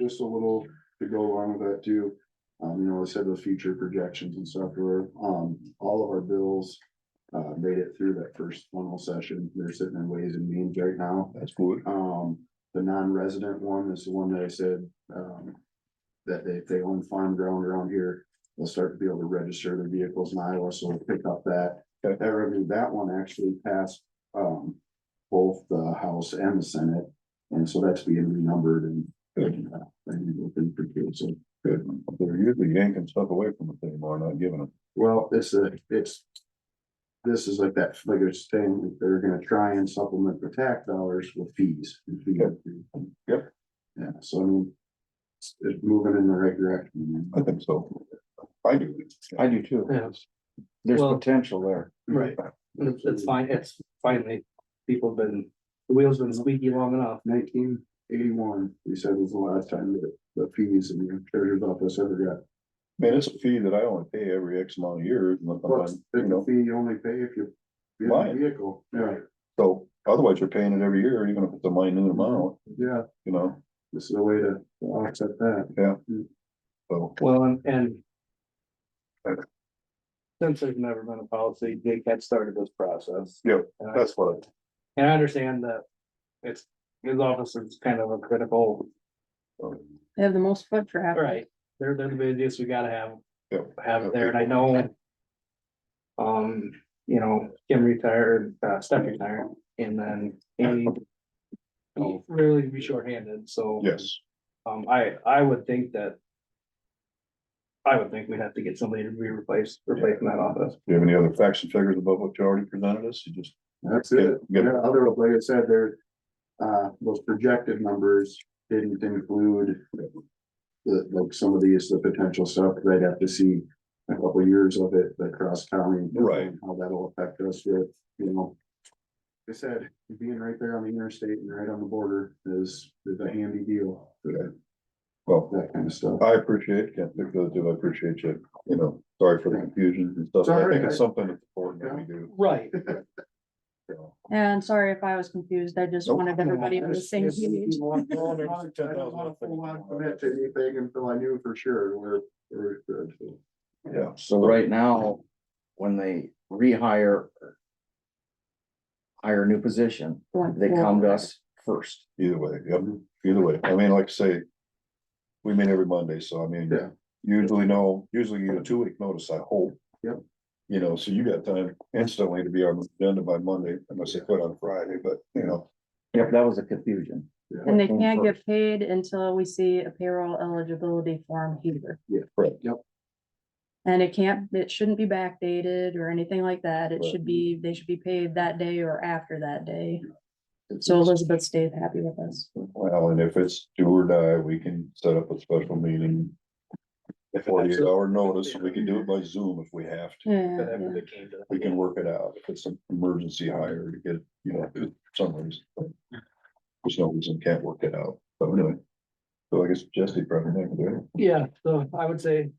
just a little to go along with that too. Um, you know, I said the future projections and stuff were, um, all of our bills. Uh, made it through that first funnel session. They're sitting in ways and means right now. That's good. Um, the non-resident one is the one that I said, um. That they, if they own farm ground around here, they'll start to be able to register their vehicles in Iowa, so we'll pick up that. Okay. That revenue, that one actually passed, um, both the House and the Senate, and so that's being renumbered and. And uh, and it'll be pretty good, so. Good. They're usually yanking stuff away from us anymore, not giving them. Well, it's a, it's. This is like that figures thing, they're gonna try and supplement the tax dollars with fees. and fee increase. Yep. Yeah, so I mean. It's, it's moving in the right direction. I think so. I do. I do too. Yeah, There's Well- potential there. right. It's, it's fine, it's finally, people have been, the wheels been squeaky long enough. Nineteen eighty-one, we said was the last time that the fees in the treasurer's office ever Man, it's a fee that I only pay every X amount of years. unless got. I'm- You It's a know, fee you only pay if you. you have a Right. Vehicle, yeah, so otherwise you're paying it every year, even if it's a minute amount, yeah, you know, this is a way to offset that. so. Well, and, and since there's never been a policy, Jake had started this process. Yeah, And I- That's what, And I understand that it's, his office is kind of a critical, I- um, They have the most foot traffic. right, they're, they're the busiest, we gotta have, yeah. have it there, and I know. Um, you know, Kim retired, uh, Steph retired, and then Amy. Oh. Really be shorthanded, so. Yes, Um, I, I would think that. I would think we'd have to get somebody to be replaced, replacing that office. do you have any other facts and figures above what you already presented us? You just. That's get- it. Get Yeah, other, like I said, there, uh, those projected numbers didn't include. The, like some of these, the potential stuff, they'd have to see a couple of years of it, the cross county. Right. How that'll affect us with, you know. They said, being right there on the interstate and right on the border is, is a handy deal for Well, that kind of stuff. I appreciate, can't think of it, I appreciate you, you know, sorry for the confusion and stuff. It's all I think right. it's something that's important that we do. Right. so. And sorry if I was confused. I just Nope. wanted everybody on the same page. I don't wanna full on commit to anything until I knew for sure where, where it could, so. Yeah, So right now, when they rehire. or Hire a new position, going they come forward. to us first. either way, yeah, either way. I mean, like I say, we meet every Monday, so I mean, Yeah. usually no, usually you get a two week notice, I hope. Yep. You know, so you got time instantly to be on the agenda by Monday, unless they quit on Friday, but you know, Yep, that was a confusion. And they come can't first. get paid until we see a payroll eligibility form here. Yeah, correct. Yep. And it can't, it shouldn't be backdated or anything like that. It Right. should be, they should be paid that day or after that day. So Elizabeth stayed happy with us. Well, and if it's do or die, we can set up a special meeting. Forty-eight hour notice, we can do it by Zoom if we have to. Yeah, But yeah. then they came to- We can work it out. If it's an emergency hire to get, you know, for some reason. There's no reason we can't work it out. So anyway. So I guess Jesse probably not gonna do it. Yeah, so I would say,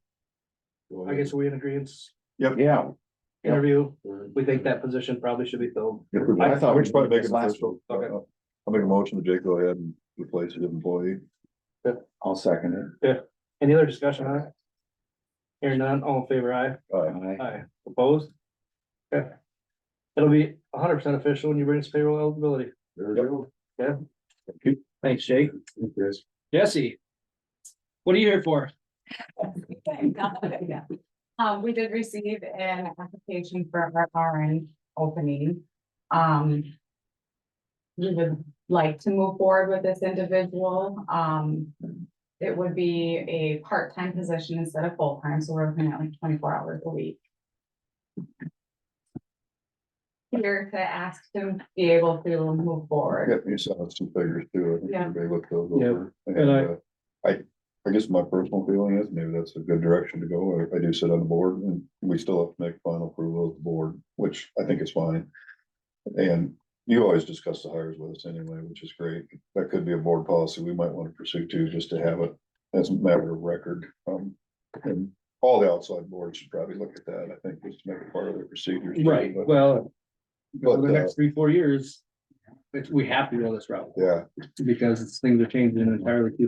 go I ahead. guess we in agreement, Yeah, Yep. interview, we think that position probably should be filled. I thought we Which probably did make this it last official. week. Okay. Uh, I'll make a motion to Jake go ahead and replace his employee. I'll second Any other discussion on it? Hearing none, all in favor, aye, Uh, it. aye, opposed? Okay. It'll be hundred percent official when you bring us payroll eligibility. There we go. Thanks, Jake. Thank you, guys. Jesse. What are you here for? Thank God, yeah. Um, we did receive an application for our RN opening. Um. We would like to move forward with this individual. Um, it would be a part-time position instead of full-time, so we're looking at like twenty-four hours a week. Here to ask to be able to move forward. Yep, you sent us some figures too. I think Yeah. everybody looked those Yeah, over. and I- uh, I, I guess my personal feeling is maybe that's a good direction to go. I- I do sit on the board and we still have to make final approval of the board, which I think is fine. And you always discuss the hires with us anyway, which is great. That could be a board policy we might want to pursue too, just to have it as a matter of record. Um, and all the outside boards should probably look at that, I think, just to make it part of their procedures. too, Right, but- well. For But, the uh, next three, four years, it's, we have to go this route Yeah, because things are changing entirely too